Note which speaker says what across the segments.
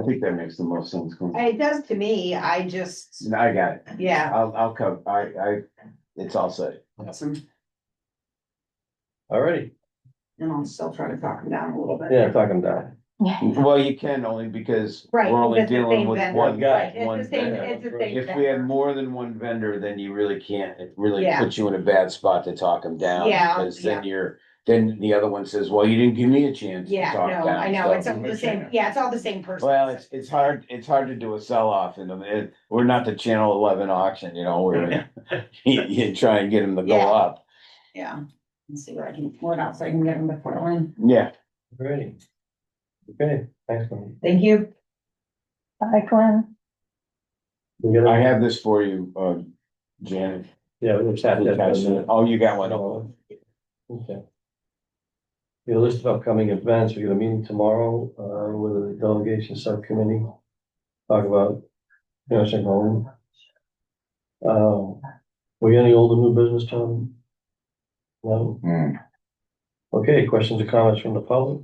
Speaker 1: I think that makes the most sense. Quinn.
Speaker 2: It does to me, I just,
Speaker 1: No, I got it.
Speaker 2: yeah.
Speaker 1: I'll, I'll come. I, I, it's all set.
Speaker 2: Awesome.
Speaker 3: Alrighty,
Speaker 2: And I'll still try to talk him down a little bit.
Speaker 3: yeah, talking down.
Speaker 1: Well, you can only because we're
Speaker 2: Right,
Speaker 1: only
Speaker 2: that's the
Speaker 1: dealing
Speaker 2: same
Speaker 1: with
Speaker 2: vendor,
Speaker 1: one
Speaker 3: right,
Speaker 1: guy,
Speaker 2: It's
Speaker 1: one
Speaker 2: the same,
Speaker 1: vendor.
Speaker 2: it's the same.
Speaker 1: If we had more than one vendor, then you really can't, it really
Speaker 2: Yeah.
Speaker 1: puts you in a bad spot to talk them down.
Speaker 2: Yeah,
Speaker 1: Cause then you're, then the other one says, well, you didn't give me a chance to
Speaker 2: Yeah,
Speaker 1: talk down.
Speaker 2: no, I know, it's
Speaker 1: so-
Speaker 2: all the same, yeah, it's all the same person.
Speaker 1: Well, it's, it's hard, it's hard to do a sell-off in them. It- We're not the Channel Eleven auction, you know, where you, you try and get them to go
Speaker 2: Yeah.
Speaker 1: up.
Speaker 2: Yeah. Let's see where I can, what else I can get him before I win.
Speaker 1: Yeah,
Speaker 3: Ready. Okay, thanks. man.
Speaker 2: Thank you.
Speaker 4: Hi, Glenn.
Speaker 3: We got a-
Speaker 1: I have this for you, uh, Janet.
Speaker 3: Yeah, we just had that.
Speaker 1: Oh, you got one.
Speaker 3: Okay. Your list of upcoming events, we got a meeting tomorrow, uh, with the delegation subcommittee, talk about nursing home. Uh, we got any older new business, Tom? No,
Speaker 1: Hmm.
Speaker 3: okay, questions or comments from the public?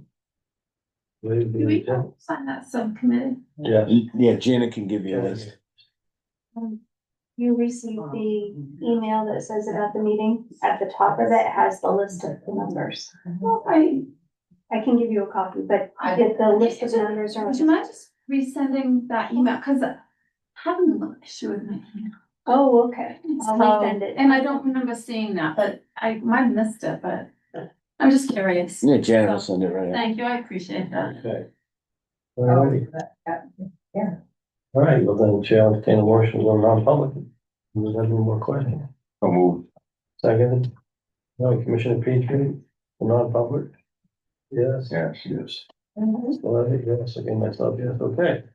Speaker 3: Leave the
Speaker 5: Do we
Speaker 3: agenda.
Speaker 5: sign that subcommittee?
Speaker 3: Yeah.
Speaker 1: Yeah, Janet can give you a list.
Speaker 6: You received the
Speaker 2: Um,
Speaker 6: email that says about the meeting, at the top of it has the list of the numbers.
Speaker 5: Well, I,
Speaker 6: I can give you a copy, but if the list of numbers are.
Speaker 5: would you mind just resending that email? Cause I have a little issue with my email.
Speaker 6: Oh, okay, I'll resend
Speaker 5: So-
Speaker 6: it.
Speaker 5: And I don't remember seeing that, but I might have missed it, but I'm just curious.
Speaker 1: Yeah, Janet will send it right out.
Speaker 5: Thank you, I appreciate that.
Speaker 3: Okay. All right, all right, well then, Chair, I'll entertain a motion on non-public. Does anyone have any more questions?
Speaker 1: I'll move.
Speaker 3: Second, no, Commissioner Petrie, the non-public? Yes.
Speaker 1: Yeah, she is.
Speaker 3: Well, I think yes, again, myself, yes, okay.